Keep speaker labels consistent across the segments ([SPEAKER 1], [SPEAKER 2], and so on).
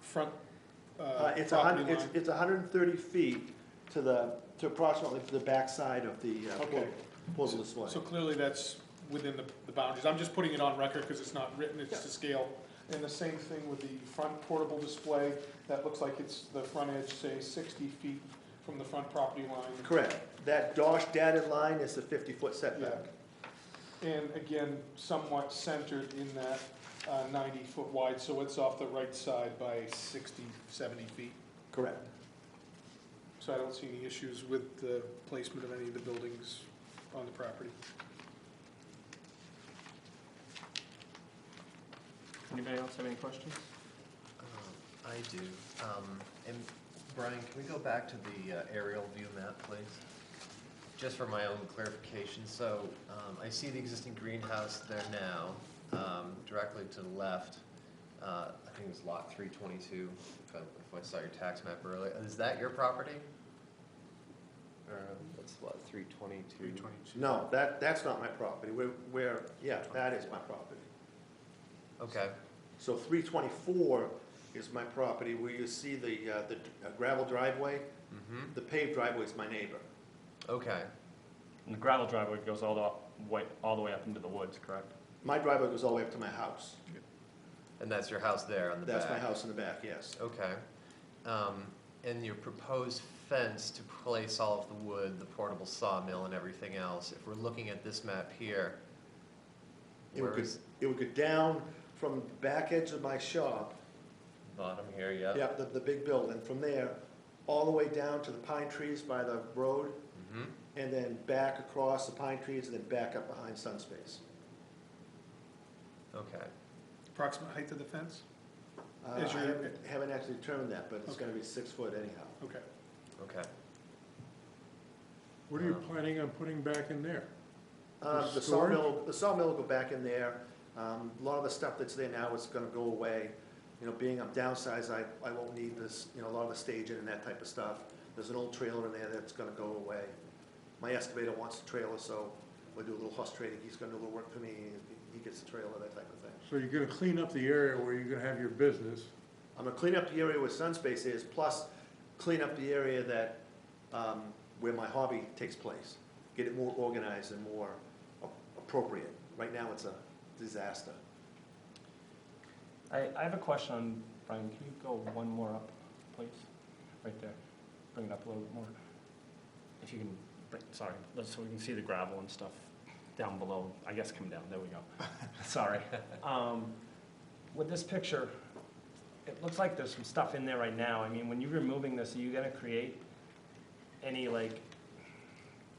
[SPEAKER 1] front uh,
[SPEAKER 2] Uh, It's a
[SPEAKER 1] property
[SPEAKER 2] hundred,
[SPEAKER 1] line?
[SPEAKER 2] it's, it's hundred and thirty feet to the, to approximately to the backside of the uh,
[SPEAKER 1] Okay.
[SPEAKER 2] portable display.
[SPEAKER 1] So clearly that's within the, the boundaries. I'm just putting it on record because it's not written, it's to scale. And the same thing with the front portable display, that looks like it's the front edge, say, sixty feet from the front property line.
[SPEAKER 2] Correct. That dosh dotted line is the fifty-foot
[SPEAKER 1] Yeah.
[SPEAKER 2] setback.
[SPEAKER 1] And again, somewhat centered in that uh, ninety foot wide, so it's off the right side by 60, 70 feet.
[SPEAKER 2] Correct.
[SPEAKER 1] So I don't see any issues with the placement of any of the buildings on the property.
[SPEAKER 3] Anybody else have any questions?
[SPEAKER 4] Um, I do. Um, And Brian, can we go back to the uh, aerial view map, please? Just for my own clarification, so um, I see the existing greenhouse there now, um, directly to the left. Uh, I think it's lot 322, if I- if I saw your tax map earlier. Is that your property? Or
[SPEAKER 2] Uh,
[SPEAKER 4] that's lot 322?
[SPEAKER 2] No, that, that's not my property. We're, we're, yeah, that is my property.
[SPEAKER 4] Okay,
[SPEAKER 2] So three twenty-four is my property where you see the, uh, the gravel driveway.
[SPEAKER 4] Mhm.
[SPEAKER 2] The paved driveway is my neighbor.
[SPEAKER 4] okay.
[SPEAKER 3] And the gravel driveway goes all the way, all the way up into the woods, correct?
[SPEAKER 2] My driveway goes all the way up to my house.
[SPEAKER 4] And that's your house there on the back?
[SPEAKER 2] That's my house in the back, yes.
[SPEAKER 4] Okay. Um, and your proposed fence to place all of the wood, the portable sawmill and everything else, if we're looking at this map here,
[SPEAKER 2] It would
[SPEAKER 4] where
[SPEAKER 2] go,
[SPEAKER 4] is
[SPEAKER 2] it would go down from the back edge of my shop,
[SPEAKER 4] bottom here, yeah?
[SPEAKER 2] yeah, the, the big building, from there, all the way down to the pine trees by the road,
[SPEAKER 4] hmm
[SPEAKER 2] and then back across the pine trees, and then back up behind Sunspace.
[SPEAKER 4] okay.
[SPEAKER 1] Approximate height of the fence?
[SPEAKER 2] Uh, I
[SPEAKER 1] Is your-
[SPEAKER 2] haven't, haven't actually determined that, but it's
[SPEAKER 1] Okay.
[SPEAKER 2] gonna be six foot anyhow.
[SPEAKER 1] Okay.
[SPEAKER 4] Okay.
[SPEAKER 5] What are you
[SPEAKER 4] Um,
[SPEAKER 5] planning on putting back in there?
[SPEAKER 2] Um, the
[SPEAKER 5] storage?
[SPEAKER 2] sawmill, the sawmill will go back in there, um, a lot of the stuff that's there now is gonna go away. You know, being I'm downsized, I, I won't need this, you know, a lot of the staging and that type of stuff. There's an old trailer in there that's gonna go away. My excavator wants the trailer, so we'll do a little horse trading, he's gonna do a little work for me, he- he gets the trailer, that type of thing.
[SPEAKER 5] So you're gonna clean up the area where you're gonna have your business.
[SPEAKER 2] I'm gonna clean up the Um, area where Sunspace is, plus clean up the area that, um, where my hobby takes place. Get it more organized and more a- appropriate. Right now, it's a disaster.
[SPEAKER 3] I, I have a question on, Brian, can you go one more up, please? Right there, bring it up a little bit more. If you can, bring- sorry, let's- so we can see the gravel and stuff down below, I guess come down, there we go. Sorry. Um, With this picture, it looks like there's some stuff in there right now. I mean, when you're removing this, are you gonna create any like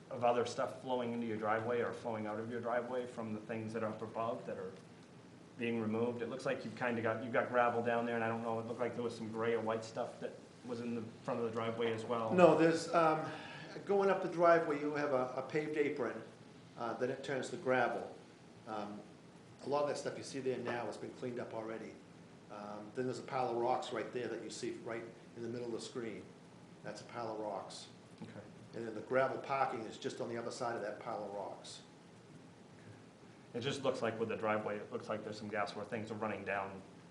[SPEAKER 3] of other stuff flowing into your driveway or flowing out of your driveway from the things that are up above that are being removed. It looks like you've kind of got, you've got gravel down there, and I don't know, it looked like there was some gray or white stuff that was in the front of the driveway as well.
[SPEAKER 2] No, there's, um, going up the driveway, you have a a paved apron, uh, then it turns to gravel. Um, A lot of that stuff you see there now has been cleaned up already. Um, Then there's a pile of rocks right there that you see right in the middle of the screen. That's a pile of rocks.
[SPEAKER 3] Okay.
[SPEAKER 2] And then the gravel parking is just on the other side of that pile of rocks.
[SPEAKER 3] It just looks like with the driveway, it looks like there's some gas where things are running down,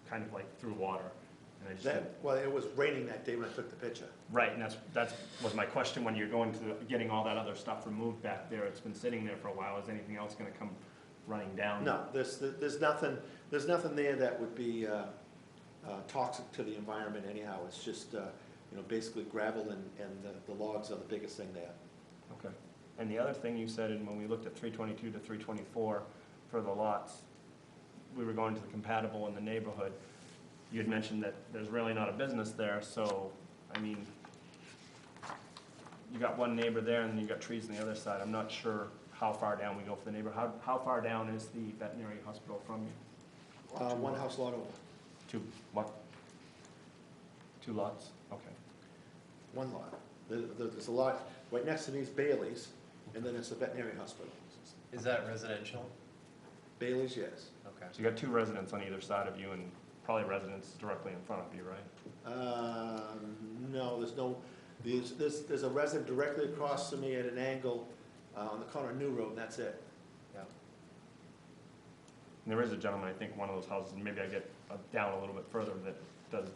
[SPEAKER 3] kind of like through water. And I just,
[SPEAKER 2] That, well, it was raining that day when I took the picture.
[SPEAKER 3] right, and that's, that's, was my question, when you're going to, the- getting all that other stuff removed back there, it's been sitting there for a while, is anything else gonna come running down?
[SPEAKER 2] No, there's, there's nothing, there's nothing there that would be uh, uh, toxic to the environment anyhow. It's just, uh, you know, basically gravel and, and the- the logs are the biggest thing there.
[SPEAKER 3] Okay. And the other thing you said, and when we looked at three twenty-two to three twenty-four for the lots, we were going to the compatible in the neighborhood. You had mentioned that there's really not a business there, so, I mean, you got one neighbor there and then you got trees on the other side. I'm not sure how far down we go for the neighbor. How, how far down is the veterinary hospital from you?
[SPEAKER 2] Uh, One house lot over,
[SPEAKER 3] Two, what? Two lots? Okay.
[SPEAKER 2] one lot. There- there- There's a lot, right next to me is Bailey's, and then it's the veterinary hospital.
[SPEAKER 4] Is that residential?
[SPEAKER 2] Bailey's, yes.
[SPEAKER 4] Okay.
[SPEAKER 3] So you got two residents on either side of you and probably residents directly in front of you, right?
[SPEAKER 2] Um, No, there's no, there's, there's there's a resident directly across from me at an angle uh, on the corner of New Road, and that's it.
[SPEAKER 4] Yeah.
[SPEAKER 3] And There is a gentleman, I think, one of those houses, and maybe I get uh, down a little bit further, that does